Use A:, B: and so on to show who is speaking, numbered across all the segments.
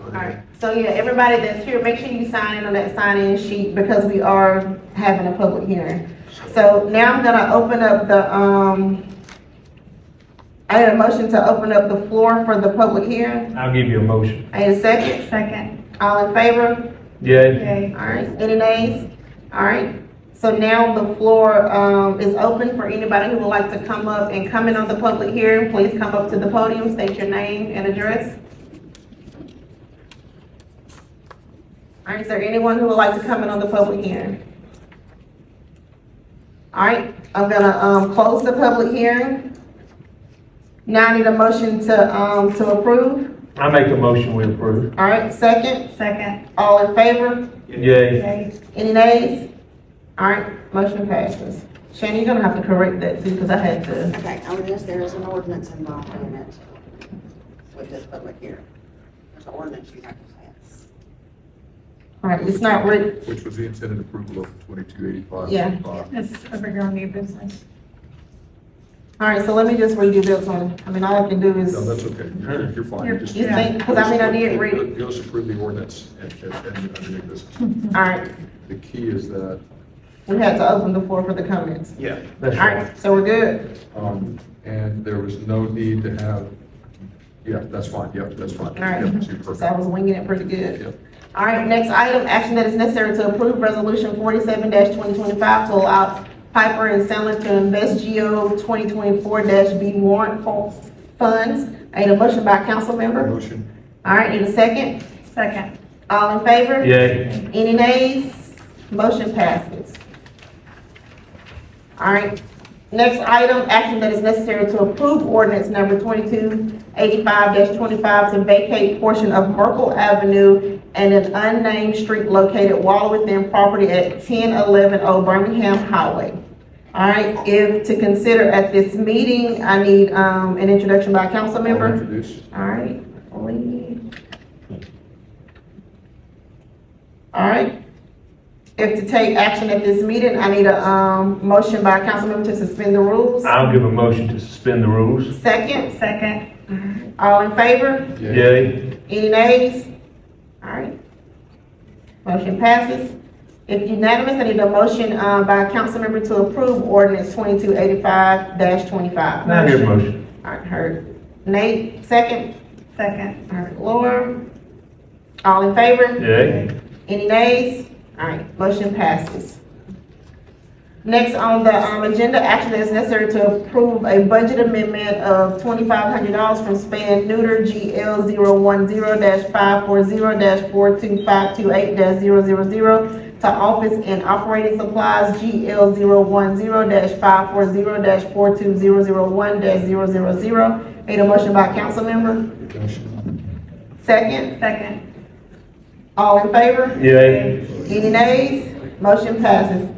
A: Alright, so yeah, everybody that's here, make sure you sign in on that sign-in sheet because we are having a public hearing. So now I'm gonna open up the, um, I need a motion to open up the floor for the public hearing.
B: I'll give you a motion.
A: I need a second.
C: Second.
A: All in favor?
B: Yay.
C: Okay.
A: Alright, any nays? Alright, so now the floor, um, is open for anybody who would like to come up and comment on the public hearing. Please come up to the podium, state your name and address. Alright, is there anyone who would like to comment on the public hearing? Alright, I'm gonna, um, close the public hearing. Now I need a motion to, um, to approve.
B: I make a motion we approve.
A: Alright, second,
C: Second.
A: all in favor?
B: Yay.
C: Okay.
A: Any nays? All right, motion passes. Shannon, you're gonna have to correct that too, because I had to.
D: Okay, on this, there is an ordinance involved in it with this public hearing. There's an ordinance you have to pass.
A: All right, it's not writ,
E: Which was the intended approval of twenty-two eighty-five.
A: Yeah.
C: This over here on new business.
A: all right, so let me just redo this one. I mean, all I can do is,
E: No, that's okay, you're, you're fine. just-
A: You think- 'cause I mean, I did read it.
E: You also approve the ordinance and, and, and under new business.
A: all right,
E: The key is that,
A: we had to open the floor for the comments.
B: Yeah.
A: All
B: That's right.
A: right, so we're good.
E: um, and there was no need to have, yeah, that's fine, yep, that's fine.
A: All right.
E: Yep, super.
A: So I was winging it pretty good.
E: Yep.
A: All right, next item, action that is necessary to approve resolution forty-seven twenty twenty-five to allow Piper and Sandler to invest GO twenty twenty-four B warrant for funds. I need a motion by council member.
E: Motion,
A: All right, need a second?
C: Second.
A: All in favor?
B: Yay.
A: Any nays? Motion passes. All right, next item, action that is necessary to approve ordinance number twenty-two eighty-five twenty-five to vacate portion of Merkle Avenue and an unnamed street located well within property at ten eleven Old Birmingham Highway. All right, if to consider at this meeting, I need, um, an introduction by a council
E: I'll
A: member.
E: introduce.
A: All right, Lee. All right. If to take action at this meeting, I need a, um, motion by Councilmember to suspend the rules.
B: I'll give a motion to suspend the rules.
A: Second,
C: Second.
A: all in favor?
B: Yay.
A: Any nays? All right. Motion passes. If unanimous, I need a motion, uh, by Councilmember to approve ordinance twenty-two eighty-five twenty-five.
B: Now I give a motion.
A: All right, heard. Nate, second.
C: Second.
A: All right, Laura. All in favor?
B: Yay.
A: Any nays? All right, motion passes. Next on the, um, agenda, action that is necessary to approve a budget amendment of twenty-five hundred dollars from span neuter GL 10 five four zero four two five two eight 0 to office and operating supplies GL 10 five four zero four two zero zero one 0 Need a motion by council member?
E: Motion.
A: Second,
C: Second.
A: all in favor?
B: Yay.
A: Any nays? Motion passes.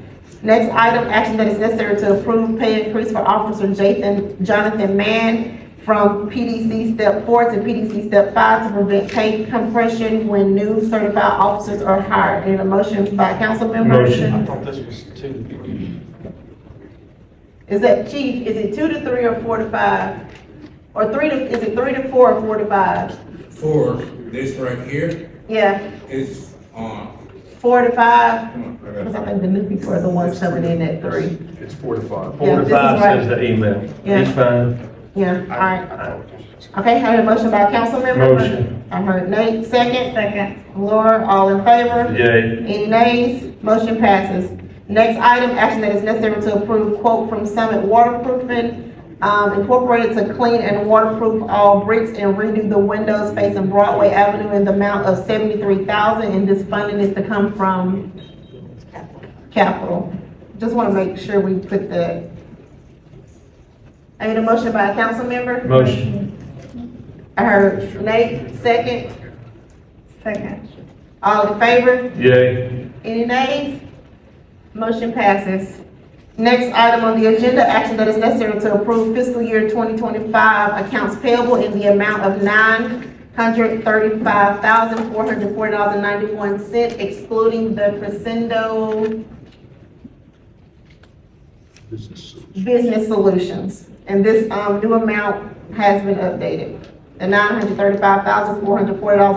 A: Next item, action that is necessary to approve pay increase for Officer Jathan Jonathan Mann from PDC Step Four to PDC Step Five to prevent pay compression when new certified officers are hired. Need a motion by council member?
B: Motion.
F: thought this was two.
A: Is that chief, is it two to three or four to five? Or three to, is it three to four or four to five?
G: For this right here
A: Yeah,
G: is uh, on,
A: four to five? Because I think the new people are the ones coming in at three.
E: It's four to five.
B: Four
A: Yeah, this
B: to
A: is
B: five
A: right.
B: says the email.
A: Yeah.
B: He's fine.
A: Yeah, all right.
E: I apologize.
A: Okay, I heard a motion by council member.
B: Motion.
A: I heard Nate, second.
C: Second.
A: Laura, all in favor?
B: Yay.
A: Any nays? Motion passes. Next item, action that is necessary to approve quote from Summit Waterproofing um, Incorporated to clean and waterproof all bricks and redo the windows facing Broadway Avenue in the amount of seventy-three thousand, and this funding is to come from capital. Just want to make sure we put that. I need a motion by a council member.
B: Motion.
A: I heard Nate, second.
C: Second.
A: All in favor?
B: Yay.
A: Any nays? Motion passes. Next item on the agenda, action that is necessary to approve fiscal year 2025 accounts payable in the amount of $935,440.91 excluding the Crescendo
E: Business.
A: Business Solutions. And this um, new amount has been updated. the nine hundred thirty-five thousand, four hundred forty dollars